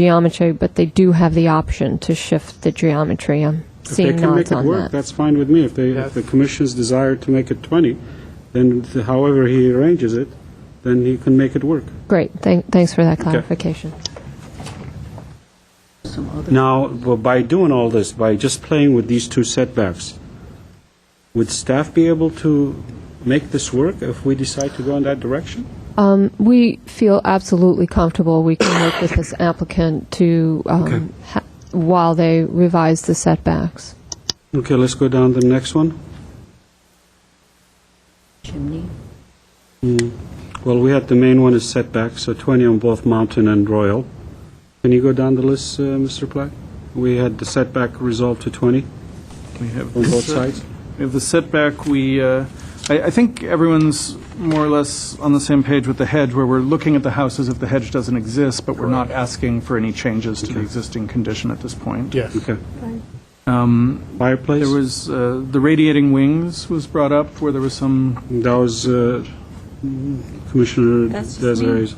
geometry, but they do have the option to shift the geometry. I'm seeing nods If they can on make it work, that. that's fine with me. If they, if the commission's desire to make it 20, then th- however he arranges it, then he can make it work. Great, Thank- thanks for that clarification. Now, b- by doing all this, by just playing with these two setbacks, would staff be able to make this work if we decide to go in that direction? Um, We feel absolutely comfortable we can work with this applicant to, um, ha- while they revise the setbacks. Okay, let's go down to the next one. chimney. Well, we had the main one is setback, so 20 on both Mountain and Royal. Can you go down the list, uh, Mr. Platt? We had the setback resolved to 20 We have on the both set- sides. We have the setback, we, uh, I I think everyone's more or less on the same page with the hedge, where we're looking at the house as if the hedge doesn't exist, but we're not asking for any changes to the existing condition at this point. Yes. Okay. Um, Fireplace? There was, uh, the radiating wings was brought up, where there was some, That was uh, Commissioner That's just me. Desiree's.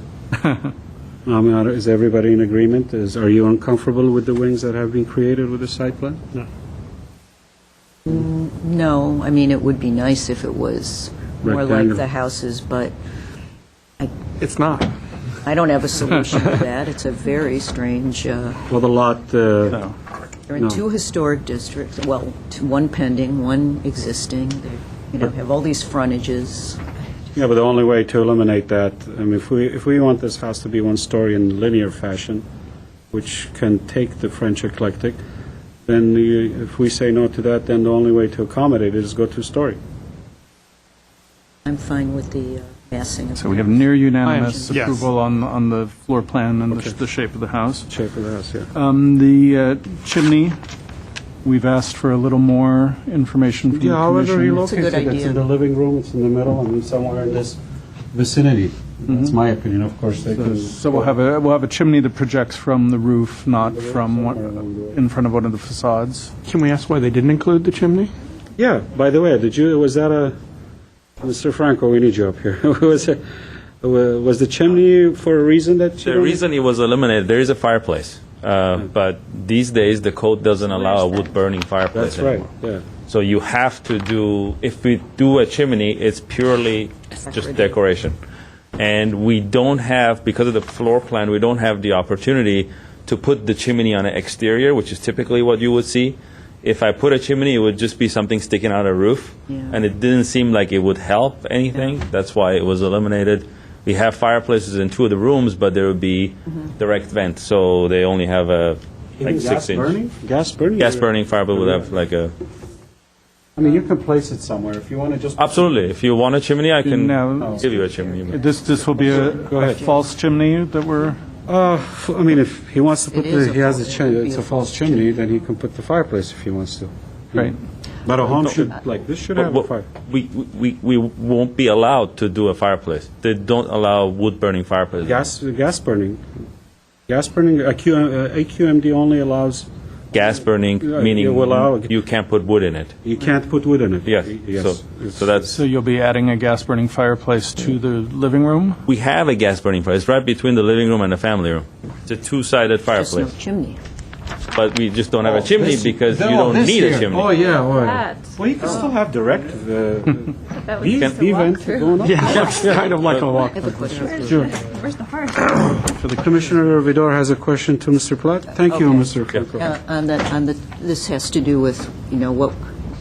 I mean, are- is everybody in agreement? Is, are you uncomfortable with the wings that have been created with the site plan? No, I mean, it would be nice if it was more like Rectangle. the houses, but It's not. I don't have a solution to that. It's a very strange, uh, Well, the lot, uh, No. they're in two historic districts, well, two- one pending, one existing, They, you know, have all these frontages. yeah, but the only way to eliminate that, I mean, if we, if we want this house to be one story in linear fashion, which can take the French eclectic, then you- if we say no to that, then the only way to accommodate it is go two-story. I'm fine with the uh, massing of so we have near unanimous I am- yes. approval on, on the floor plan and the sh- the shape of the house. Shape of the house, yeah. Um, The uh, chimney, we've asked for a little more information from the Yeah, however commission. you It's a good locate it, it's idea. in the living room, it's in the middle, I mean, somewhere in this vicinity. Mm-hmm. That's my opinion, of course, they So- can... So we'll have a, we'll have a chimney that projects from the roof, not from, one- in front of one of the facades. Can we ask why they didn't include the chimney? Yeah, by the way, did you, was that a, Mr. Franco, we need you up here. Was it, wa- was the chimney for a reason that you The don't- reason it was eliminated, there is a fireplace, uh, Hmm. but these days, the code doesn't allow a wood-burning fireplace That's right, anymore. yeah. So you have to do, if we do a chimney, it's purely just Decorative. decoration. And we don't have, because of the floor plan, we don't have the opportunity to put the chimney on an exterior, which is typically what you would see. If I put a chimney, it would just be something sticking out of the roof. Yeah. And it didn't seem like it would help anything. That's why it was eliminated. We have fireplaces in two of the rooms, but there would be direct vent, so they only have a, like, Gas six-inch. burning? Gas burning? Gas burning fireplace would have like a, I mean, you can place it somewhere, if you want to just... absolutely, if you want a chimney, I can Now, give you a chimney. this, this will be a Go a ahead. false chimney that we're, Uh, f- I mean, if he wants to put, It is the- a he has a false- chimney, it'd be it's a a false chimney, then he can put the fireplace if he wants to. right, But a home should, like, this should have a fire. We, we, we won't be allowed to do a fireplace. They don't allow wood-burning fireplace. Gas, gas burning. Gas burning, uh, Q- uh, AQMD only allows, Gas burning, Yeah, meaning you allow- you can't put wood in it. you can't put wood in it. Yes, Yes. so, It's- so that's. so you'll be adding a gas-burning fireplace to the living room? We have a gas burning fireplace right between the living room and the family room. It's a There's two-sided no fireplace, chimney. but we just don't have a chimney because you don't need a chimney. Oh, yeah, oh, yeah. That. Well, you can still have direct, uh, That was the just a event walkthrough. going on. It's kind of like a walk. I have a question. Where's the heart? Commissioner Vidor has a question to Mr. Platt. Thank you, Okay. Mr. Franco. Uh, On the, on the, this has to do with, you know, what,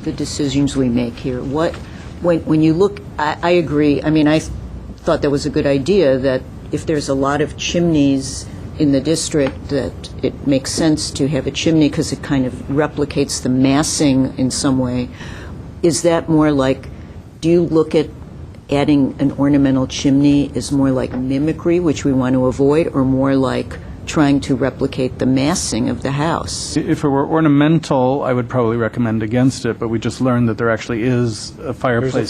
the decisions we make here. What, when, when you look, I, I agree, I mean, I thought that was a good idea, that if there's a lot of chimneys in the district, that it makes sense to have a chimney because it kind of replicates the massing in some way. Is that more like, do you look at adding an ornamental chimney is more like mimicry, which we want to avoid, or more like trying to replicate the massing of the house? If it were ornamental, I would probably recommend against it, but we just learned that there actually is a fireplace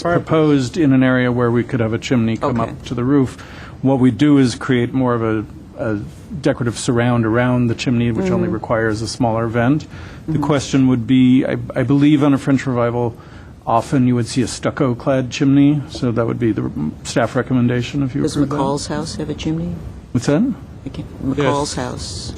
fireplace. proposed in an area where we could have a chimney come Okay. up to the roof. What we do is create more of a a decorative surround around the chimney, which only requires a smaller vent. The question would be, I I believe on a French revival, often you would see a stucco-clad chimney, so that would be the r- staff recommendation if you Does approve that. McCall's house have a chimney? What's that? I can't- McCall's house.